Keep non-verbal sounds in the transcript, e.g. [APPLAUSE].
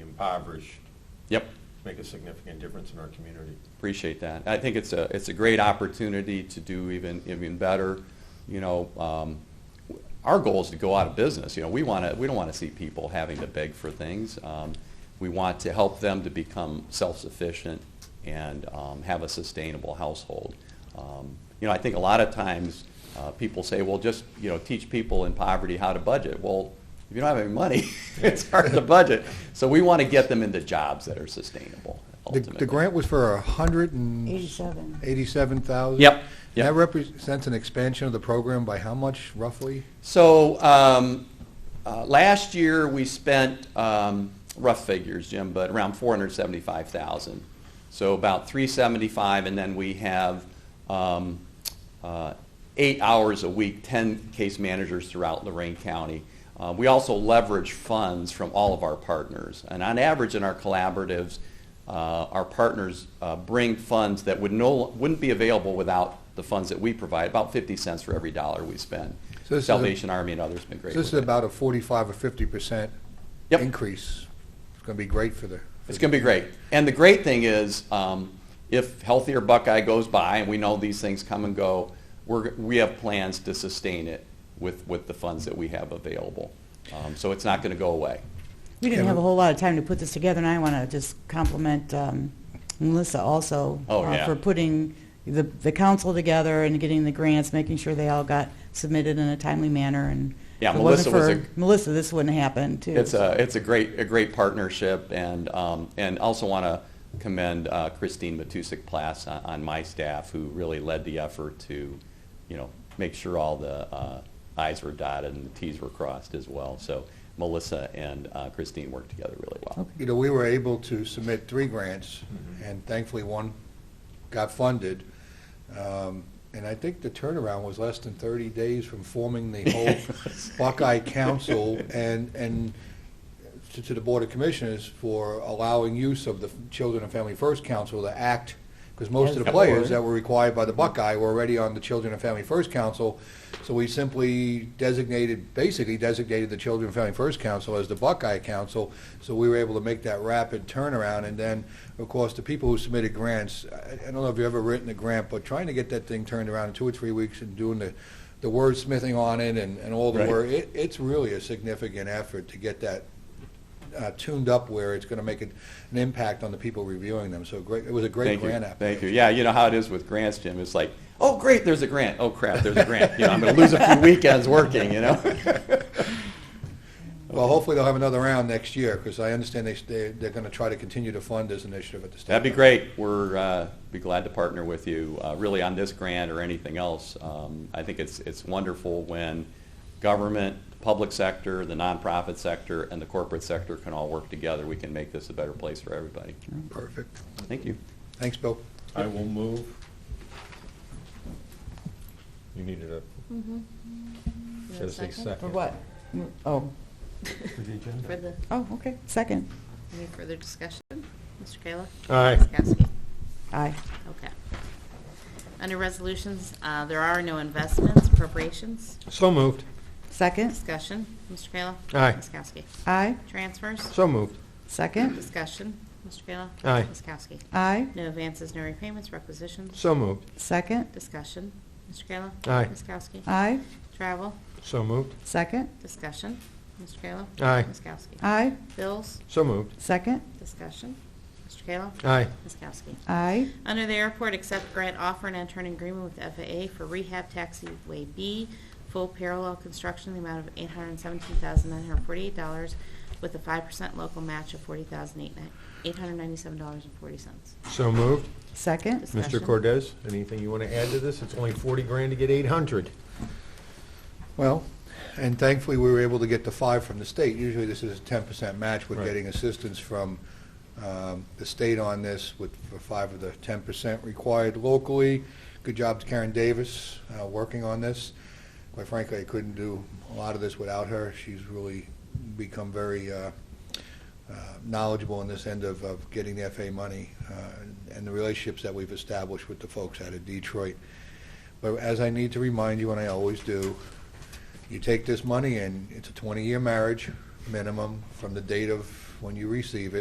impoverished Yep, make a significant difference in our community. appreciate that. I think it's a, it's a great opportunity to do even, even better. You know, um, w- our goal is to go out of business. You know, we want to, we don't want to see people having to beg for things. Um, we want to help them to become self-sufficient and um, have a sustainable household. Um, you know, I think a lot of times uh, people say, well, just, you know, teach people in poverty how to budget. Well, if you don't have any money, [LAUGHS] it's hard to budget. So we want to get them into jobs that are sustainable. The, ultimately. the grant was for a hundred and 87. eighty-seven thousand? Yep, And that yep. represents an expansion of the program by how much roughly? So um, uh, last year, we spent, um, rough figures, Jim, but around 475,000. So about 375, and then we have um, uh, eight hours a week, 10 case managers throughout Lorraine County. Uh, We also leverage funds from all of our partners. And on average, in our collaboratives, uh, our partners uh, bring funds that would no, wouldn't be available without the funds that we provide, about 50 cents for every dollar we spend. So this is a- Salvation Army and others have been So great. this is with it. about a forty-five or fifty percent Yep. increase. It's gonna be great for the. It's going to be great. And the great thing is, um, if Healthier Buckeye goes by, and we know these things come and go, we're, we have plans to sustain it with, with the funds that we have available. Um, so it's not going to go away. We didn't Yeah, have a but- whole lot of time to put this together, and I want to just compliment um, Melissa also. Oh, uh, yeah. For putting the, the council together and getting the grants, making sure they all got submitted in a timely manner, and. Yeah, if it wasn't Melissa was for Melissa, this wouldn't happen, too. It's a, it's a great, a great partnership, and, um, and also want to commend uh, Christine Matusik-Plas on, on my staff, who really led the effort to, you know, make sure all the uh, i's were dotted and the t's were crossed as well. So Melissa and uh, Christine worked together really well. Okay. You know, we were able to submit three grants, Mm-hmm. and thankfully one got funded. Um, And I think the turnaround was less than 30 days from forming [LAUGHS] the whole Buckeye Council and, and to- to the Board of Commissioners for allowing use of the Children and Family First Council to act, because most of the Yes. players that were required by the Buckeye were already on the Children and Family First Council. So we simply designated, basically designated the Children and Family First Council as the Buckeye Council. So we were able to make that rapid turnaround. And then, of course, the people who submitted grants, I I don't know if you've ever written a grant, but trying to get that thing turned around in two or three weeks and doing the, the wordsmithing on it and, and all the Right. work, it, it's really a significant effort to get that uh, tuned up where it's going to make an an impact on the people reviewing them. So great, it was a great Thank grant you. application. Thank you. Yeah, you know how it is with grants, Jim. It's like, oh, great, there's a grant. Oh, crap, there's a grant. You know, I'm going to lose a few weekends working, you know? [LAUGHS] Well, hopefully they'll have another round next year, because I understand they, they- they're going to try to continue to fund this initiative at the state. That'd be level. great. We're, uh, be glad to partner with you, uh, really on this grant or anything else. Um, I think it's, it's wonderful when government, public sector, the nonprofit sector, and the corporate sector can all work together. We can make this a better place for everybody. Perfect. Thank you. Thanks, Bill. I will move. You needed a, Mm-hmm. as a second. For what? Oh, For the agenda. For the, oh, okay, second. [LAUGHS] any further discussion? Mr. Kayla? Aye. Ms. Kowski? Aye. Okay. Under resolutions, uh, there are no investments, appropriations, So moved. Second? discussion. Mr. Kayla? Aye. Ms. Kowski? Aye. Transfers, So moved. Second? discussion. Mr. Kayla? Aye. Ms. Kowski? Aye. No advances, no repayments, requisitions, So moved. Second? discussion. Mr. Kayla? Aye. Ms. Kowski? Aye. Travel, So moved. Second? discussion. Mr. Kayla? Aye. Ms. Kowski? Aye. Bills, So moved. Second? discussion. Mr. Kayla? Aye. Ms. Kowski? Aye. Under the airport, accept grant offer and enter an agreement with FAA for rehab taxiway B, full parallel construction, in the amount of $817,948 with a 5% local match of $40,897.40. So moved. Second? Mr. Discussion. Cordez, anything you want to add to this? It's only 40 grand to get 800. Well, and thankfully, we were able to get the five from the state. Usually, this is a ten percent match. We're Right. getting assistance from um, the state on this with for five of the ten percent required locally. Good job to Karen Davis, uh, working on this. Quite frankly, I couldn't do a lot of this without her. She's really become very uh, uh, knowledgeable in this end of, of getting the FA money uh, and- and the relationships that we've established with the folks out of Detroit. But as I need to remind you, and I always do, you take this money and it's a 20-year marriage minimum from the date of when you receive it.